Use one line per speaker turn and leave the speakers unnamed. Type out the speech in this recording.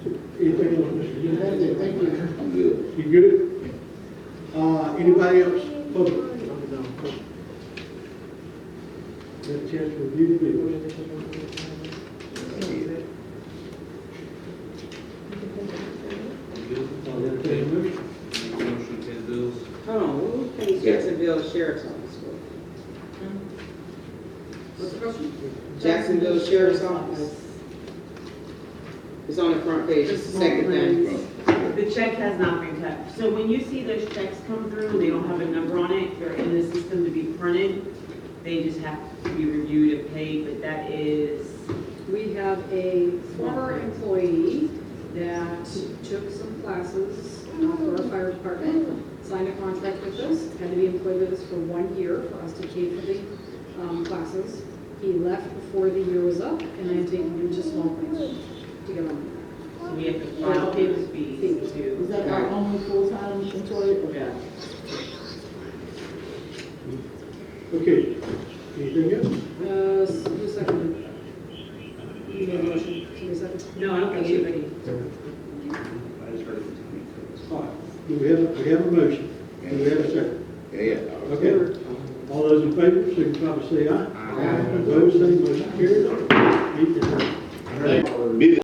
Anything else, Mr. Gill?
That's it, thank you.
I'm good.
You good? Uh, anybody else? Public? Get a chance to review the bill. I'll entertain a motion.
Motion to pay the bills.
Hold on, who pays Jacksonville Sheriff's Office for?
What's the question?
Jacksonville Sheriff's Office. It's on the front page, it's the second thing.
The check has not been cut. So when you see those checks come through, they don't have a number on it, they're in the system to be printed. They just have to be reviewed and paid, but that is,
We have a former employee that took some classes uh, for our fire department, signed a contract with us, had to be employed with us for one year for us to pay for the um, classes. He left before the year was up, and I am taking him to small claims to get on.
so we have to file those fees
Is
to.
that our only full-time employee?
Yeah.
Okay, anything else?
Uh, s- who seconded? You made a motion, somebody seconded?
No, I don't think anybody.
I just heard it.
All right, do we have, we have a motion? Do we have a second?
Yeah.
Okay. All those in favor, signify by saying aye. Opposed, same motion carries. Meeting adjourned.
Busy.